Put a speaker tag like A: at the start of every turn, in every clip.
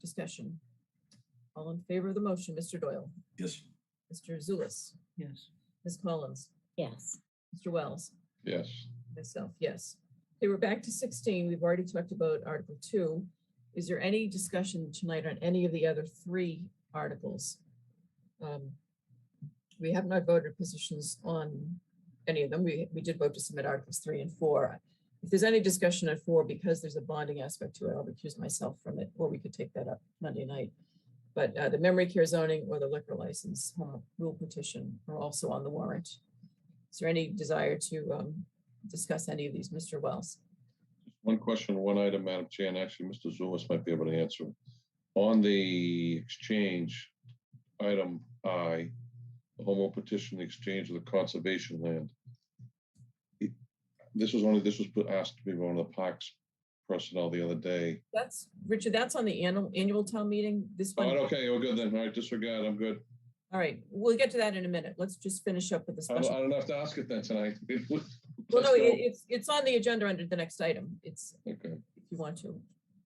A: Discussion. All in favor of the motion, Mr. Doyle,
B: Yes.
A: Mr. Zulus,
C: Yes.
A: Ms. Collins,
D: yes,
A: Mr. Wells,
E: yes,
A: myself, yes. Okay, we're back to 16. We've already talked about Article 2. Is there any discussion tonight on any of the other three articles? Um, We have not voted positions on any of them. We, we did vote to submit Articles 3 and 4. If there's any discussion on 4, because there's a bonding aspect to it, I'll recuse myself from it, or we could take that up Monday night. But uh, the memory care zoning or the liquor license uh, rule petition are also on the warrant. Is there any desire to um, discuss any of these, Mr. Wells.
E: one question, one item, Madam Chair, and actually, Mr. Zulus might be able to answer. On the exchange, item I, the home rule petition, the exchange of the conservation land. It- This was only, this was put- asked to be one of the parks personnel the other day.
A: That's, Richard, that's on the annual, annual town meeting, this
E: All right,
A: one.
E: Oh, okay, we're good then. All right, disregard, I'm good.
A: All right, we'll get to that in a minute. Let's just finish up with the
E: I don't, I
A: special.
E: don't have to ask it then tonight.
A: Well, no, it- it's, it's on the agenda under the next item. It's,
E: Okay,
A: if you want to.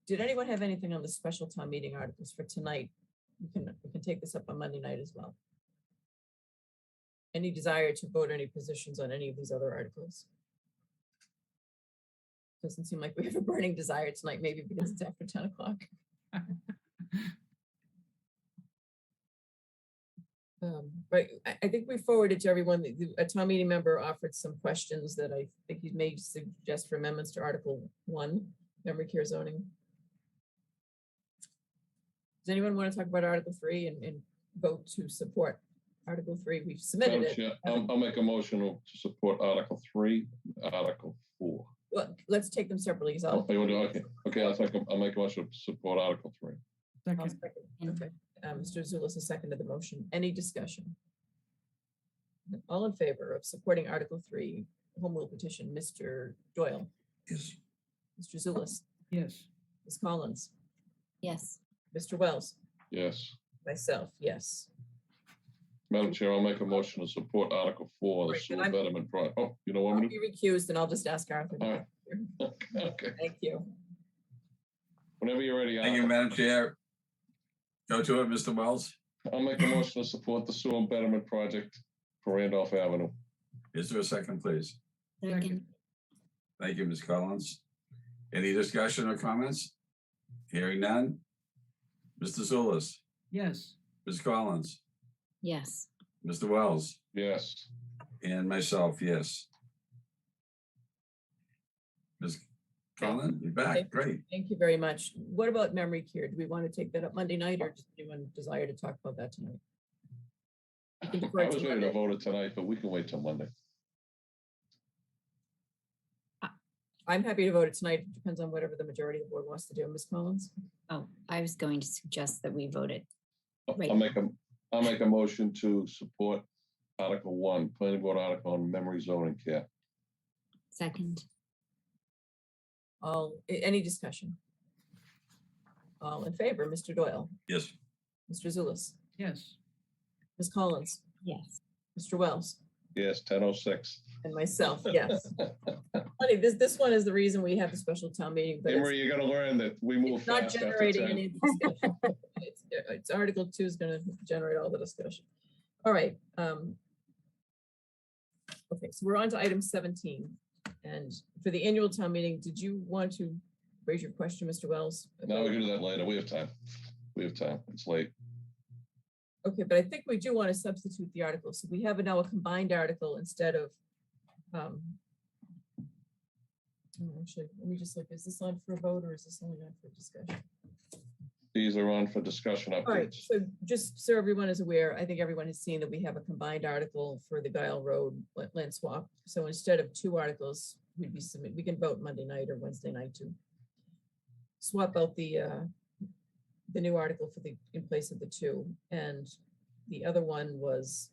A: Did anyone have anything on the special town meeting articles for tonight? We can, we can take this up on Monday night as well. Any desire to vote any positions on any of these other articles? Doesn't seem like we have a burning desire tonight, maybe because it's after 10 o'clock. Um, But I, I think we forwarded to everyone, the- the- a town meeting member offered some questions that I think he may suggest for amendments to Article One, memory care zoning. Does anyone want to talk about Article Three and, and vote to support Article Three? We've submitted
E: Madam
A: it.
E: Chair, I'll, I'll make a motion to support Article Three, Article Four.
A: Well, let's take them separately. 'cause
E: Oh,
A: I'll-
E: you want to, okay, okay, I'll take, a- I'll make a motion to support Article Three.
A: I'll
C: Second.
A: second.
D: And-
A: Okay. Uh, Mr. Zulus has seconded the motion. Any discussion? All in favor of supporting Article Three, home rule petition, Mr. Doyle,
B: Yes.
A: Mr. Zulus,
C: Yes.
A: Ms. Collins,
D: yes,
A: Mr. Wells,
E: Yes.
A: myself, yes.
E: Madam Chair, I'll make a motion to support Article Four, the
A: Right, but
E: sewer
A: I'm-
E: betterment project. Oh, you know what
A: I'll
E: I'm
A: be recused and I'll just ask Arthur.
E: All
A: to
E: right. gonna
A: Oh,
E: do? Okay,
A: Thank you.
E: whenever you're ready.
B: Thank you,
E: Arthur.
B: Madam Chair. Go to it, Mr. Wells.
E: I'll make a motion to support the sewer betterment project for Randolph Avenue.
B: Is there a second, please?
D: second,
B: Thank you, Ms. Collins. Any discussion or comments? Hearing none. Mr. Zulus,
C: Yes.
B: Ms. Collins,
D: yes,
B: Mr. Wells,
E: Yes,
B: and myself, yes. Ms. Collins, you're
A: Okay.
B: back. Great.
A: Thank you very much. What about memory care? Do we want to take that up Monday night or does anyone desire to talk about that tonight?
E: I
A: can defer to
E: was ready to
A: Monday.
E: vote it tonight, but we can wait till Monday.
A: I'm happy to vote it tonight. It Depends on whatever the majority of the board wants to do. Ms. Collins?
D: oh, I was going to suggest that we voted,
E: I'll- I'll
D: Right.
E: make a, I'll make a motion to support Article One, planning board article on memory zoning care.
D: second,
A: All, a- any discussion? All in favor, Mr. Doyle,
B: Yes.
A: Mr. Zulus,
C: Yes.
A: Ms. Collins,
D: yes,
A: Mr. Wells,
E: Yes, ten oh six.
A: and myself, yes. Funny, this, this one is the reason we have the special town meeting, but it's
E: Emery, you're gonna learn that we move
A: it's not
E: fast after
A: generating
E: 10.
A: any of the discussion. It's it's Article Two is gonna generate all the discussion. All right, um. Okay, so we're on to item seventeen, and for the annual town meeting, did you want to raise your question, Mr. Wells?
E: No,
A: about-
E: we can do that later. We have time. We have time. It's late.
A: Okay, but I think we do want to substitute the article, so we have now a combined article instead of. um, oh, Actually, let me just look, is this on for a vote or is this only on for discussion?
E: These are on for discussion
A: All right,
E: updates.
A: so just so everyone is aware, I think everyone has seen that we have a combined article for the Guile Road la- land swap. So instead of two articles, we'd be submit, we can vote Monday night or Wednesday night to swap out the, uh, the new article for the, in place of the two. And the other one was,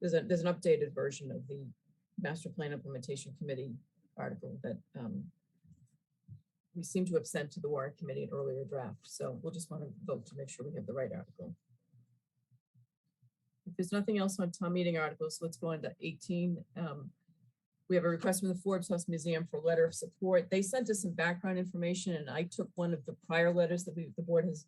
A: there's a, there's an updated version of the Master Plan Implementation Committee article that um, we seem to have sent to the warrant committee an earlier draft, so we'll just want to vote to make sure we have the right article. If there's nothing else on town meeting articles, let's go on to eighteen. Um, We have a request from the Forbes House Museum for a letter of support. They sent us some background information, and I took one of the prior letters that we, the board has